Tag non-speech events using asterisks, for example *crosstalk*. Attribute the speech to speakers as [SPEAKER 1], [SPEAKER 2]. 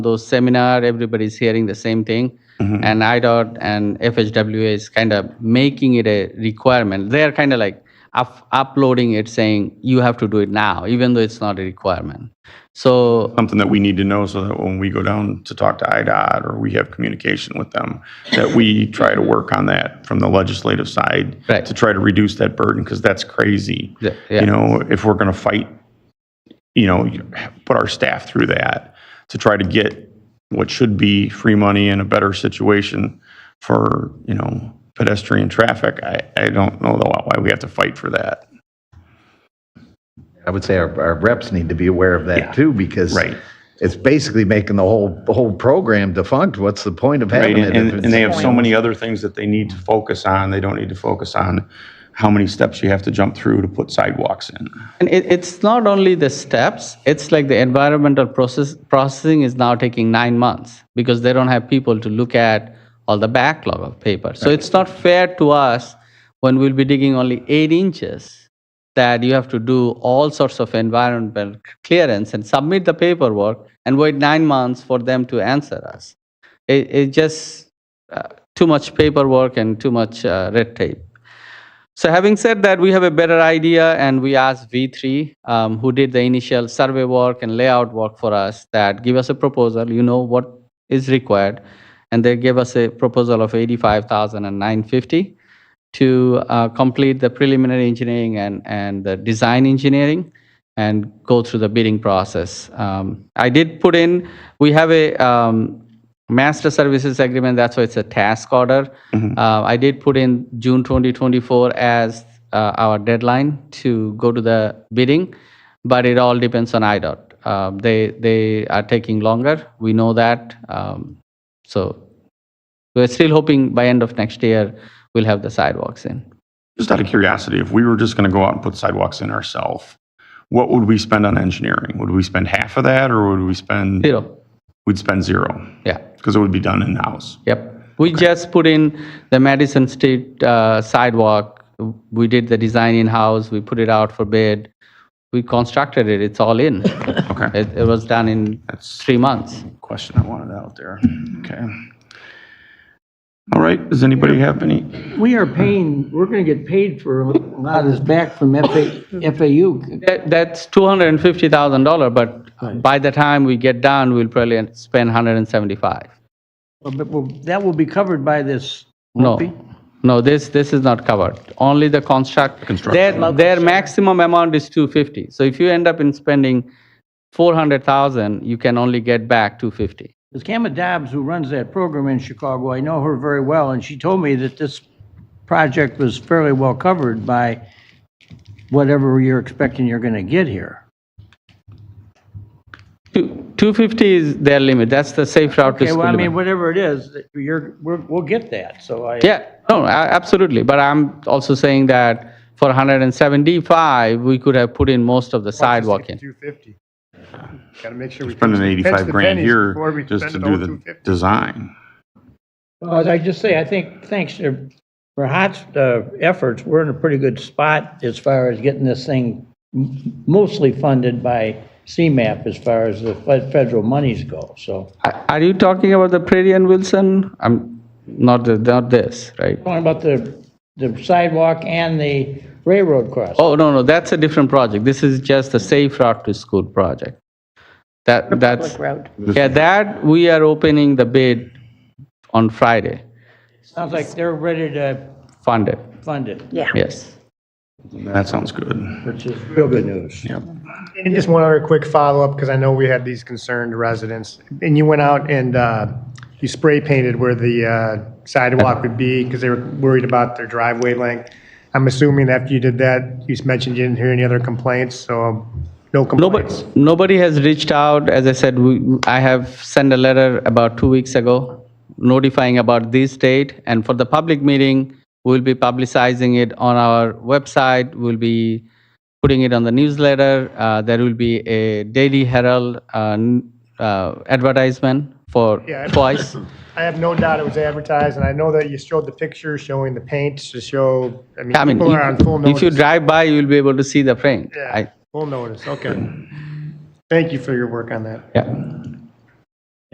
[SPEAKER 1] those seminar, everybody's hearing the same thing. And IDOT and FHWA is kind of making it a requirement. They are kind of like up- uploading it saying, you have to do it now, even though it's not a requirement. So
[SPEAKER 2] something that we need to know so that when we go down to talk to IDOT or we have communication with them, that we try to work on that from the legislative side
[SPEAKER 1] Right.
[SPEAKER 2] to try to reduce that burden because that's crazy.
[SPEAKER 1] Yeah, yeah.
[SPEAKER 2] You know, if we're going to fight, you know, you- put our staff through that to try to get what should be free money in a better situation for, you know, pedestrian traffic. I, I don't know though why we have to fight for that.
[SPEAKER 3] I would say our, our reps need to be aware of that too, because
[SPEAKER 2] Right.
[SPEAKER 3] it's basically making the whole, the whole program defunct. What's the point of
[SPEAKER 2] Right,
[SPEAKER 3] having it?
[SPEAKER 2] and,
[SPEAKER 3] if
[SPEAKER 2] and- and they
[SPEAKER 3] it's-
[SPEAKER 2] have so many other things that they need to focus on, they don't need to focus on how many steps you have to jump through to put sidewalks in.
[SPEAKER 1] And it, it's not only the steps, it's like the environmental process, processing is now taking nine months because they don't have people to look at all the backlog of paper. So it's not fair to us when we'll be digging only eight inches that you have to do all sorts of environmental clearance and submit the paperwork and wait nine months for them to answer us. It, it just, uh, too much paperwork and too much uh, red tape. So having said that, we have a better idea and we asked V3, um, who did the initial survey work and layout work for us, that give us a proposal, you know what is required. And they gave us a proposal of 85,950 to uh, complete the preliminary engineering and, and the design engineering and go through the bidding process. Um, I did put in, we have a um, master services agreement, that's why it's a task order. Uh, I did put in June 2024 as uh, our deadline to go to the bidding, but it all depends on IDOT. Um, They, they are taking longer, we know that. Um, So we're still hoping by end of next year, we'll have the sidewalks in.
[SPEAKER 2] Just out of curiosity, if we were just gonna go out and put sidewalks in ourselves, what would we spend on engineering? Would we spend half of that, or would we spend,
[SPEAKER 1] Zero,
[SPEAKER 2] we'd spend zero?
[SPEAKER 1] yeah,
[SPEAKER 2] Because it would be done in-house.
[SPEAKER 1] yep. We just put in the Madison Street uh, sidewalk. We did the design in-house, we put it out for bid. We constructed it, it's all in.
[SPEAKER 2] *coughs* Okay,
[SPEAKER 1] It, it was done in
[SPEAKER 2] that's
[SPEAKER 1] three months.
[SPEAKER 2] the question I wanted out there. *clears throat* Okay. All right, does anybody have any?
[SPEAKER 4] We are paying, we're gonna get paid for a lot is back from FA FAU.
[SPEAKER 1] That, that's two hundred and fifty thousand dollar, but by the time we get done, we'll probably spend hundred and seventy-five.
[SPEAKER 4] But will- that will be covered by this.
[SPEAKER 1] No,
[SPEAKER 4] won't it?
[SPEAKER 1] no, this, this is not covered. Only the construct. Their,
[SPEAKER 2] Construction.
[SPEAKER 1] their maximum amount is two fifty. So if you end up in spending four hundred thousand, you can only get back two fifty.
[SPEAKER 4] Because Kama Dobbs, who runs that program in Chicago, I know her very well, and she told me that this project was fairly well covered by whatever you're expecting you're gonna get here.
[SPEAKER 1] Two, two fifty is their limit. That's the safe route to
[SPEAKER 4] Okay,
[SPEAKER 1] school
[SPEAKER 4] well, I
[SPEAKER 1] limit.
[SPEAKER 4] mean, whatever it is, that you're, we're, we'll get that, so I.
[SPEAKER 1] Yeah, no, a- absolutely. But I'm also saying that for 175, we could have put in most of the sidewalk in.
[SPEAKER 5] Two fifty. Gotta make sure we.
[SPEAKER 2] Spending
[SPEAKER 5] catch the- catch
[SPEAKER 2] 85
[SPEAKER 5] the
[SPEAKER 2] grand
[SPEAKER 5] pennies before
[SPEAKER 2] here
[SPEAKER 5] we
[SPEAKER 2] just to
[SPEAKER 5] spend
[SPEAKER 2] do
[SPEAKER 5] all
[SPEAKER 2] the
[SPEAKER 5] 250.
[SPEAKER 2] design.
[SPEAKER 4] Well, as I just say, I think, thanks to Rahat's uh, efforts, we're in a pretty good spot as far as getting this thing m- mostly funded by CMAP as far as the fe- federal monies go, so.
[SPEAKER 1] Are are you talking about the Prairie and Wilson? I'm, not, the- not this, right?
[SPEAKER 4] Talking about the the sidewalk and the railroad crossing.
[SPEAKER 1] Oh, no, no, that's a different project. This is just the Safe Route to School project. That, that's, yeah, that, we are opening the bid on Friday,
[SPEAKER 4] Sounds like they're ready to
[SPEAKER 1] funded,
[SPEAKER 4] fund it,
[SPEAKER 1] yes.
[SPEAKER 2] That sounds good.
[SPEAKER 4] which is real good news.
[SPEAKER 2] Yep.
[SPEAKER 5] And just one other quick follow-up, because I know we had these concerned residents. And you went out and uh, you spray painted where the uh, sidewalk would be because they were worried about their driveway length. I'm assuming after you did that, you mentioned you didn't hear any other complaints, so no
[SPEAKER 1] Nobody,
[SPEAKER 5] complaints.
[SPEAKER 1] nobody has reached out. As I said, we, I have sent a letter about two weeks ago notifying about this date. And for the public meeting, we'll be publicizing it on our website. We'll be putting it on the newsletter. Uh, there will be a Daily Herald uh, n- uh, advertisement for
[SPEAKER 5] Yeah. *coughs*
[SPEAKER 1] twice.
[SPEAKER 5] I have no doubt it was advertised, and I know that you showed the picture showing the paint to show, I mean,
[SPEAKER 1] I mean,
[SPEAKER 5] people are on full
[SPEAKER 1] if- if you
[SPEAKER 5] notice.
[SPEAKER 1] drive by, you'll be able to see the frame.
[SPEAKER 5] Yeah,
[SPEAKER 1] I-
[SPEAKER 5] Full notice, okay. Thank you for your work on that.
[SPEAKER 1] Yeah.